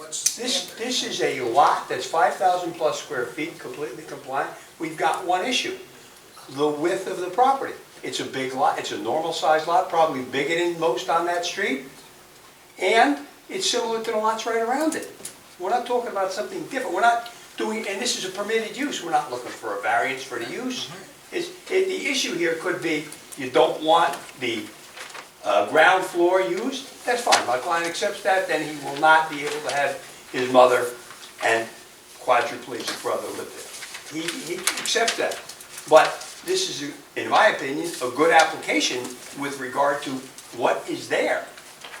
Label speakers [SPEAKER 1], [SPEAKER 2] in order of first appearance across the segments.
[SPEAKER 1] that's.
[SPEAKER 2] This, this is a lot that's 5,000 plus square feet, completely compliant. We've got one issue, the width of the property. It's a big lot, it's a normal-sized lot, probably bigger than most on that street, and it's similar to the lots right around it. We're not talking about something different, we're not doing, and this is a permitted use, we're not looking for a variance for the use. It's, it- the issue here could be, you don't want the uh, ground floor used, that's fine, my client accepts that, then he will not be able to have his mother and quadriplegic brother live there. He, he accepts that, but this is, in my opinion, a good application with regard to what is there.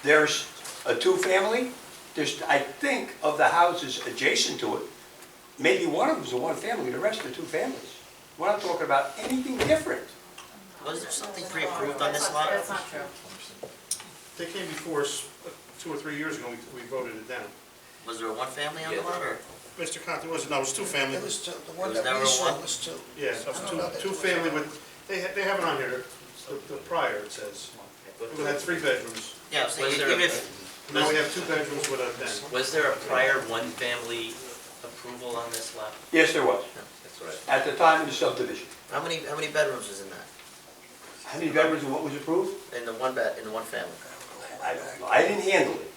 [SPEAKER 2] There's a two-family, there's, I think, of the houses adjacent to it, maybe one of them's a one-family, the rest are two families. We're not talking about anything different.
[SPEAKER 3] Was there something pre-approved on this lot?
[SPEAKER 4] That's not true.
[SPEAKER 1] They came before us uh, two or three years ago, we- we voted it down.
[SPEAKER 3] Was there one family on the lot or?
[SPEAKER 1] Mr. Conti, was it, no, it was two family,
[SPEAKER 5] It was two, the one
[SPEAKER 3] It was
[SPEAKER 5] that we
[SPEAKER 3] never
[SPEAKER 5] saw
[SPEAKER 3] one?
[SPEAKER 5] was two.
[SPEAKER 1] yeah, it was two, two family with, they, ha- they have it on here, the the prior, it says. We had three bedrooms,
[SPEAKER 3] Yeah, so
[SPEAKER 6] Was
[SPEAKER 3] you
[SPEAKER 6] there
[SPEAKER 3] give
[SPEAKER 6] a-
[SPEAKER 3] it,
[SPEAKER 1] now we have two bedrooms with a den.
[SPEAKER 6] Was there a prior one-family approval on this lot?
[SPEAKER 2] Yes, there was,
[SPEAKER 6] That's right.
[SPEAKER 2] at the time of the subdivision.
[SPEAKER 3] how many, how many bedrooms was in that?
[SPEAKER 2] How many bedrooms and what was approved?
[SPEAKER 3] In the one bed, in the one family?
[SPEAKER 2] I don't know, I didn't handle it,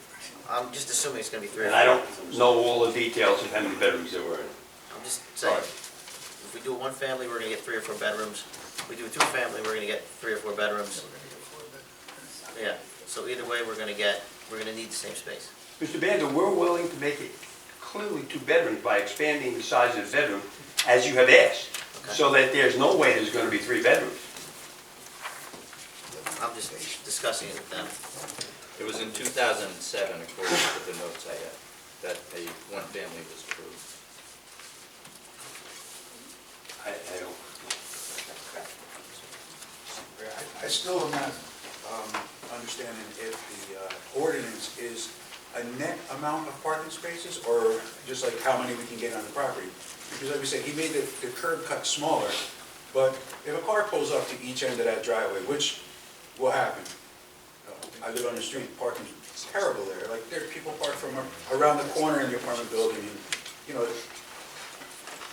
[SPEAKER 3] I'm just assuming it's gonna be three.
[SPEAKER 2] and I don't know all the details of how many bedrooms there were.
[SPEAKER 3] I'm just saying,
[SPEAKER 2] Sorry.
[SPEAKER 3] if we do a one family, we're gonna get three or four bedrooms. If we do a two family, we're gonna get three or four bedrooms. Yeah, so either way, we're gonna get, we're gonna need the same space.
[SPEAKER 2] Mr. Banda, we're willing to make it clearly two bedrooms by expanding the size of the bedroom, as you have asked, so that there's no way there's gonna be three bedrooms.
[SPEAKER 3] I'm just discussing it with them.
[SPEAKER 7] It was in 2007, according to the notes I had, that a one-family was approved.
[SPEAKER 2] I, I don't,
[SPEAKER 5] I still am not um, understanding if the uh, ordinance is a net amount of parking spaces, or just like how many we can get on the property. Because like we said, he made the the curb cut smaller, but if a car pulls up to each end of that driveway, which will happen, uh, I live on the street, parking's terrible there, like, there are people park from around the corner in the apartment building, and, you know,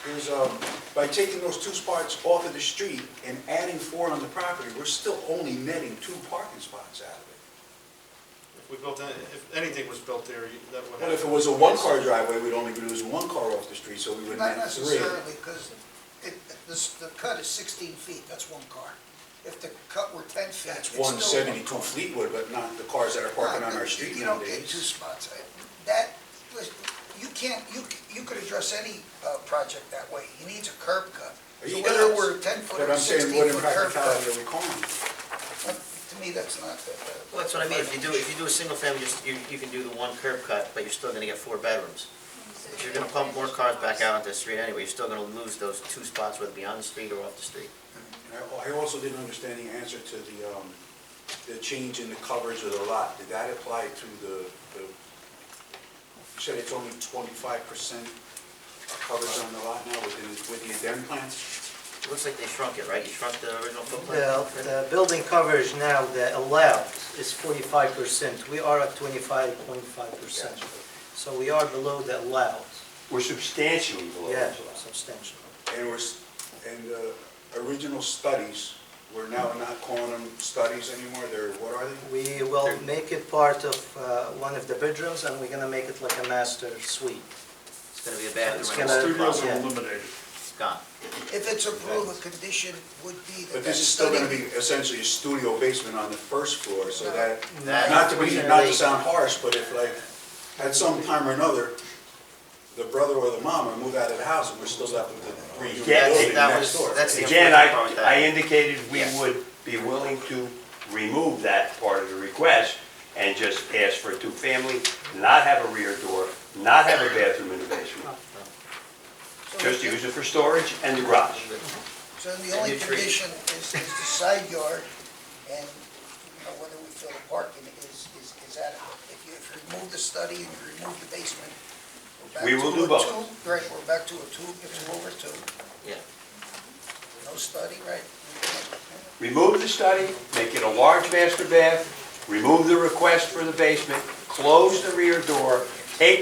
[SPEAKER 5] there's, um, by taking those two spots off of the street and adding four on the property, we're still only netting two parking spots out of it.
[SPEAKER 1] If we built, any- if anything was built there, you- that would
[SPEAKER 5] Well, if it
[SPEAKER 1] happen.
[SPEAKER 5] was a one-car driveway, we'd only be losing one car off the street, so we would
[SPEAKER 8] Not
[SPEAKER 5] net three.
[SPEAKER 8] necessarily, because it, this, the cut is sixteen feet, that's one car. If the cut were ten feet, it's
[SPEAKER 5] That's
[SPEAKER 8] still.
[SPEAKER 5] one seventy-two Fleetwood, but not the cars that are parking on our street
[SPEAKER 8] You don't get two
[SPEAKER 5] nowadays.
[SPEAKER 8] spots. Uh, That, listen, you can't, you, you could address any, uh, project that way. He needs a curb cut.
[SPEAKER 5] He
[SPEAKER 8] So whether
[SPEAKER 5] does.
[SPEAKER 8] we're ten foot
[SPEAKER 5] But
[SPEAKER 8] or
[SPEAKER 5] I'm saying,
[SPEAKER 8] sixteen
[SPEAKER 5] what
[SPEAKER 8] foot curb
[SPEAKER 5] impracticality are
[SPEAKER 8] cut,
[SPEAKER 5] we calling?
[SPEAKER 8] to me, that's not, the-
[SPEAKER 3] Well, that's what I mean, if you do, if you do a single family, just, you, you can do the one curb cut, but you're still gonna get four bedrooms. If you're gonna pump more cars back out onto the street anyway, you're still gonna lose those two spots, whether it be on the street or off the street.
[SPEAKER 5] And I- I also didn't understand the answer to the, um, the change in the coverage of the lot. Did that apply to the, the, you said it's only twenty-five percent coverage on the lot now with the, with the addend plants?
[SPEAKER 3] It looks like they shrunk it, right? You shrunk the original
[SPEAKER 9] Well,
[SPEAKER 3] footprint?
[SPEAKER 9] the building coverage now, the allowed is forty-five percent, we are at twenty-five point five percent. So we are below the allowed,
[SPEAKER 2] we're substantially below
[SPEAKER 9] yeah,
[SPEAKER 2] that.
[SPEAKER 9] substantial.
[SPEAKER 5] And we're, s- and the original studies, we're now not calling them studies anymore, they're, what are they?
[SPEAKER 9] We will make it part of uh, one of the bedrooms, and we're gonna make it like a master suite.
[SPEAKER 3] It's gonna be a
[SPEAKER 9] It's
[SPEAKER 3] bathroom and
[SPEAKER 9] gonna-
[SPEAKER 3] a
[SPEAKER 1] Studios
[SPEAKER 3] closet.
[SPEAKER 1] are
[SPEAKER 9] Yeah.
[SPEAKER 1] eliminated.
[SPEAKER 3] It's gone.
[SPEAKER 8] if it's approved, a condition would be that.
[SPEAKER 5] But
[SPEAKER 8] that
[SPEAKER 5] this is still gonna
[SPEAKER 8] study-
[SPEAKER 5] be essentially a studio basement on the first floor, so that,
[SPEAKER 3] No.
[SPEAKER 5] not to be, not to sound harsh, but if like, at some time or another, the brother or the mama move out of the house, and we're still left with the three-unit
[SPEAKER 2] Yeah,
[SPEAKER 5] building
[SPEAKER 3] that was-
[SPEAKER 5] next door.
[SPEAKER 3] that's the-
[SPEAKER 2] Again, I,
[SPEAKER 3] Unfortunate part
[SPEAKER 2] I
[SPEAKER 3] that-
[SPEAKER 2] indicated we would be willing to remove that part of the request and just ask for a two-family, not have a rear door, not have a bathroom in the basement,
[SPEAKER 8] so
[SPEAKER 2] just
[SPEAKER 8] the-
[SPEAKER 2] use it for storage and the garage.
[SPEAKER 8] So the
[SPEAKER 3] And
[SPEAKER 8] only
[SPEAKER 3] your trees.
[SPEAKER 8] condition is, is the side yard and, you know, whether we feel the parking is, is, is adequate. If you, if you remove the study and you remove the basement, we're back
[SPEAKER 2] We will
[SPEAKER 8] to
[SPEAKER 2] do
[SPEAKER 8] a
[SPEAKER 2] both.
[SPEAKER 8] two- Right, we're back to a two, it's over two,
[SPEAKER 3] Yeah.
[SPEAKER 8] no study, right?
[SPEAKER 2] Remove the study, make it a large master bath, remove the request for the basement, close the rear door, take